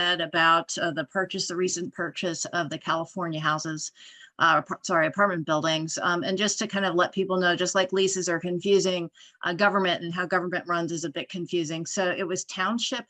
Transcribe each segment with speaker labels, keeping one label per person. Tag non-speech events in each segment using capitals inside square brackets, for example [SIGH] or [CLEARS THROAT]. Speaker 1: said about uh, the purchase, the recent purchase of the California houses, uh, ap- sorry, apartment buildings. Um, and just to kind of let people know, just like leases are confusing, uh, government and how government runs is a bit confusing. So it was township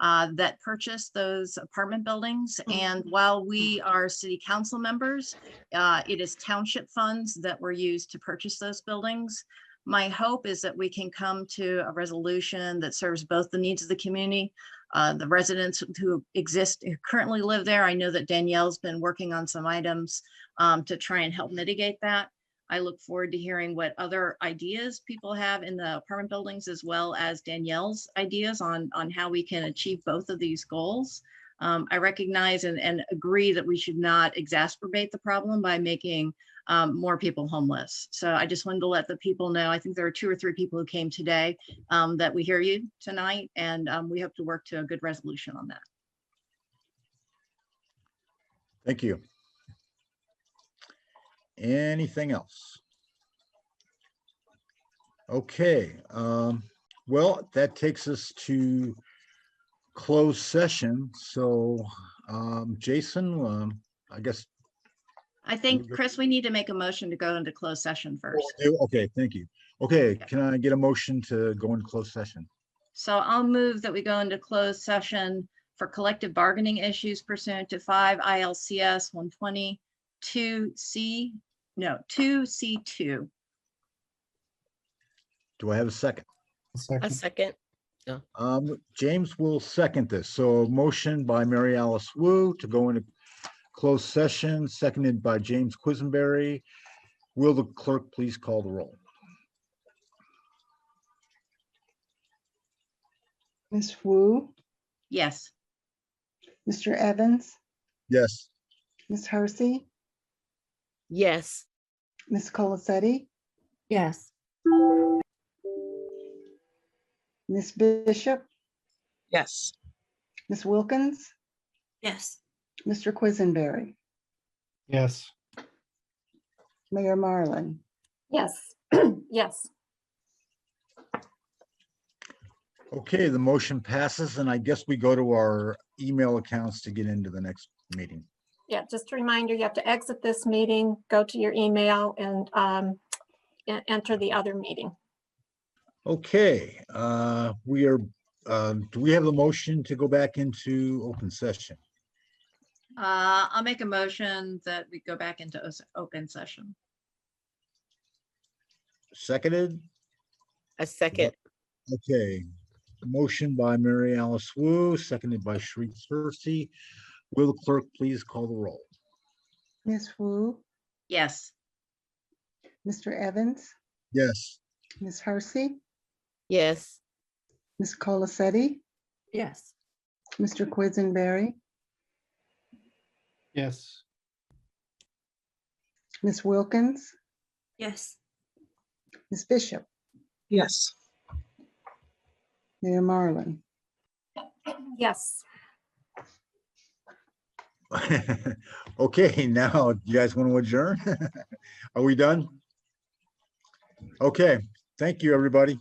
Speaker 1: uh, that purchased those apartment buildings. And while we are city council members, uh, it is township funds that were used to purchase those buildings. My hope is that we can come to a resolution that serves both the needs of the community, uh, the residents who exist, who currently live there. I know that Danielle's been working on some items um, to try and help mitigate that. I look forward to hearing what other ideas people have in the apartment buildings as well as Danielle's ideas on, on how we can achieve both of these goals. Um, I recognize and, and agree that we should not exacerbate the problem by making um, more people homeless. So I just wanted to let the people know, I think there are two or three people who came today, um, that we hear you tonight and, um, we hope to work to a good resolution on that.
Speaker 2: Thank you. Anything else? Okay, um, well, that takes us to closed session. So, um, Jason, um, I guess,
Speaker 1: I think,
Speaker 2: good.
Speaker 1: Chris, we need to make a motion to go into closed session first.
Speaker 2: okay, thank you. Okay, can I get a motion to go into closed session?
Speaker 1: So I'll move that we go into closed session for collective bargaining issues pursuant to five ILCS one twenty two C, no, two C two.
Speaker 2: Do I have a second?
Speaker 3: A second.
Speaker 2: Um, James will second this. So a motion by Mary Alice Wu to go into closed session, seconded by James Quisenberry. Will the clerk please call the roll?
Speaker 4: Ms. Wu,
Speaker 1: Yes.
Speaker 4: Mr. Evans,
Speaker 2: Yes.
Speaker 4: Ms. Hersey,
Speaker 3: Yes.
Speaker 4: Ms. Colacetti,
Speaker 5: Yes.
Speaker 4: Ms. Bishop,
Speaker 6: Yes.
Speaker 4: Ms. Wilkins,
Speaker 5: Yes.
Speaker 4: Mr. Quisenberry,
Speaker 7: Yes.
Speaker 4: Mayor Marlin.
Speaker 5: Yes. [CLEARS THROAT] Yes.
Speaker 2: Okay, the motion passes and I guess we go to our email accounts to get into the next meeting.
Speaker 5: Yeah, just a reminder, you have to exit this meeting, go to your email and um, e- enter the other meeting.
Speaker 2: Okay, uh, we are, uh, do we have the motion to go back into open session?
Speaker 1: Uh, I'll make a motion that we go back into os- open session.
Speaker 2: Seconded?
Speaker 3: A second.
Speaker 2: Okay, motion by Mary Alice Wu, seconded by Sharif Cersey. Will the clerk please call the roll?
Speaker 4: Ms. Wu,
Speaker 1: Yes.
Speaker 4: Mr. Evans,
Speaker 2: Yes.
Speaker 4: Ms. Hersey,
Speaker 3: Yes.
Speaker 4: Ms. Colacetti,
Speaker 5: Yes.
Speaker 4: Mr. Quisenberry,
Speaker 7: Yes.
Speaker 4: Ms. Wilkins,
Speaker 5: Yes.
Speaker 4: Ms. Bishop,
Speaker 6: Yes.
Speaker 4: Mayor Marlin.
Speaker 5: Yes.
Speaker 2: [LAUGHS] Okay, now, you guys want to [LAUGHS] adjourn? Are we done? Okay, thank you, everybody.